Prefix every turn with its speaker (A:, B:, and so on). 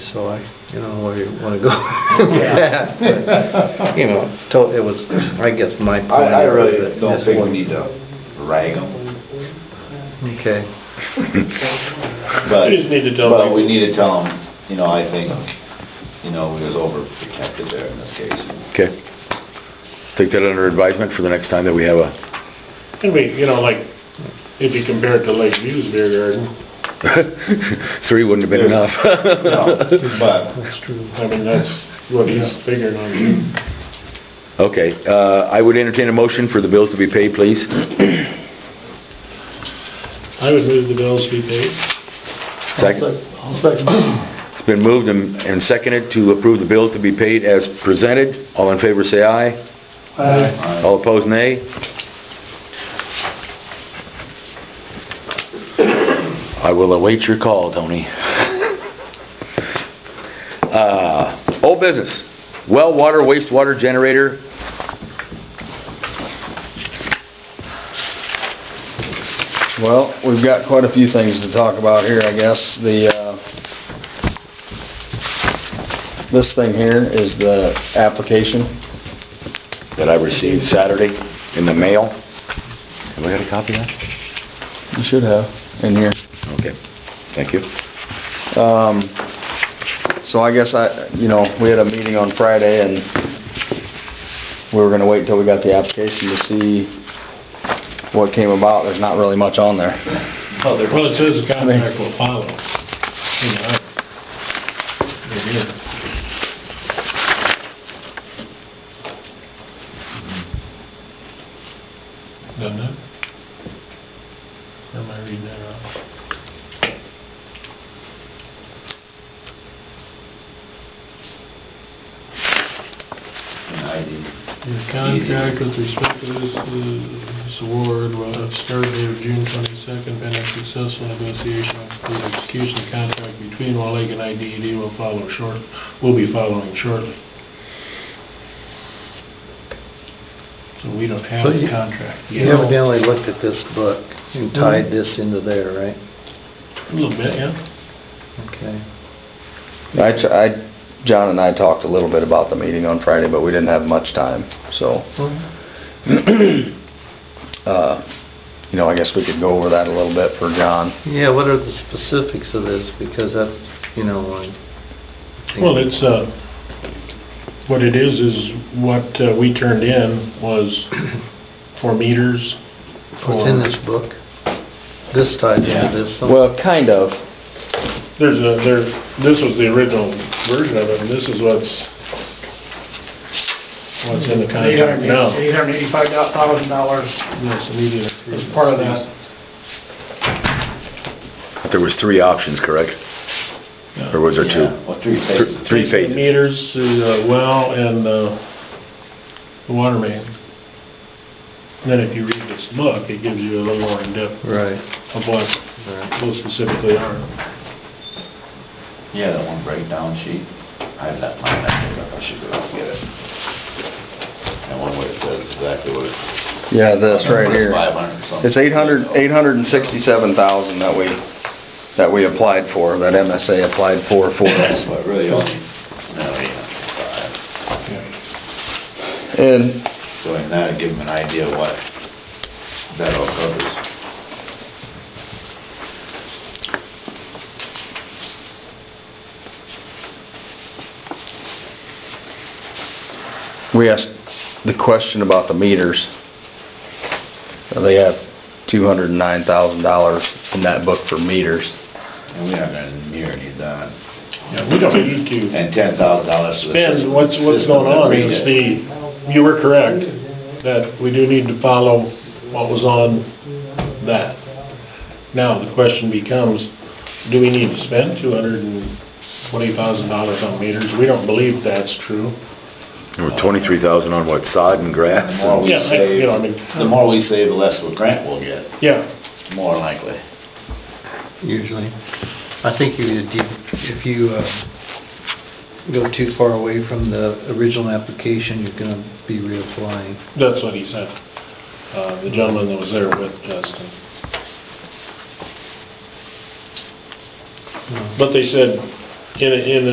A: so I, you know, where you want to go with
B: Yeah.
A: that. but, You know, it's to- it was, I guess, my point.
C: I, I
A: was
C: really
A: that
C: don't
A: this
C: think we
A: one-
C: need to rag them,
A: Okay.
C: but.
D: We just need to tell them.
C: But we need to tell them, you know, I think, you know, we was overprotected there in this case.
E: Okay. Take that under advisement for the next time that we have a,
D: And we, you know, like, if you compare it to Lakeview's beer garden,
E: three wouldn't have been enough.
C: No, But,
A: That's true.
D: I mean, that's what he's figuring on. doing.
E: Okay, uh, I would entertain a motion for the bills to be paid, please.
D: I would move the bills be paid.
E: Second. It's been moved and and seconded to approve the bills to be paid as presented. All in favor, say aye.
C: uh,
E: All opposed, nay. I will await your call, Tony. Uh, Old business, well water, wastewater generator.
F: Well, we've got quite a few things to talk about here, I guess. The, uh, this thing here is the application.
E: that I received Saturday in the mail. Have I got a copy of that?
F: You should have in here.
E: Okay, thank you.
F: Um, so I guess I, you know, we had a meeting on Friday and we were gonna wait until we got the application to see what came about. There's not really much on there.
C: well, there
D: Well,
C: was-
D: it says the contract will follow. You know, right here. Doesn't it? Or am I reading that wrong?
C: and I did-
D: The contract with respect to this uh, award will have start date of June 22nd, pending successful negotiation for the execution of contract between Wall Lake and IDED will follow short, will be following shortly. So we don't have
A: So
D: a
A: you-
D: contract Mm-hmm.
A: You
D: yet.
A: evidently looked at this book and tied this into there, right?
D: A little bit, yeah.
A: Okay.
F: I, tr- I, John and I talked a little bit about the meeting on Friday, but we didn't have much time, so. Uh, You know, I guess we could go over that a little bit for John.
A: Yeah, what are the specifics of this? Because that's, you know, I think-
D: Well, it's, uh, what it is, is what uh, we turned in was four meters.
A: What's in this book? This tied into this? some-
F: Well, kind of.
D: There's a, there, this was the original version of it, and this is what's, what's in the contract now.
G: Eight hundred eighty-five thousand dollars
D: Yes, immediate
G: is
D: approval.
G: part of that.
E: There was three options, correct?
D: Yeah.
E: Or was there two?
C: yeah, Well, three
E: Thr-
C: phases.
E: Three phases.
D: Meters, the well, and uh, the water main. And Then if you read this book, it gives you a little more in-depth
A: Right,
D: of what uh,
A: right.
D: those specifically are.
C: Yeah, that one breakdown sheet, I have that mine, I think I should go out and get it. And one where it says exactly what it's.
F: Yeah, this right here.
C: Five hundred or something.
F: It's eight hundred, eight hundred and sixty-seven thousand that we, that we applied for, that MSA applied for for us.
C: That's what really only, no, yeah,
D: Yeah.
F: And
C: five. Doing that, give them an idea of what that all covers.
F: we asked the question about the meters. Uh, They have two hundred and nine thousand dollars in that book for meters.
C: And we aren't gonna near any of that.
D: Yeah, We don't need to
C: And ten thousand dollars for the
D: spend,
C: system.
D: what's, what's
C: system
D: going
C: that
D: on
C: read
D: is
C: it.
D: the, you were correct, that we do need to follow what was on that. Now, the question becomes, do we need to spend two hundred and twenty thousand dollars on meters? We don't believe that's true.
E: There were 23,000 on what, sod and grass?
C: The more we
D: Yeah, I-
C: save,
D: you know, I mean-
C: the more we save, the less of a grant we'll get,
D: Yeah,
C: more likely.
A: usually. I think you, did- if you uh, go too far away from the original application, you're going to be reapplying.
D: that's what he said, uh, the gentleman that was there with Justin. But they said, in, a- in a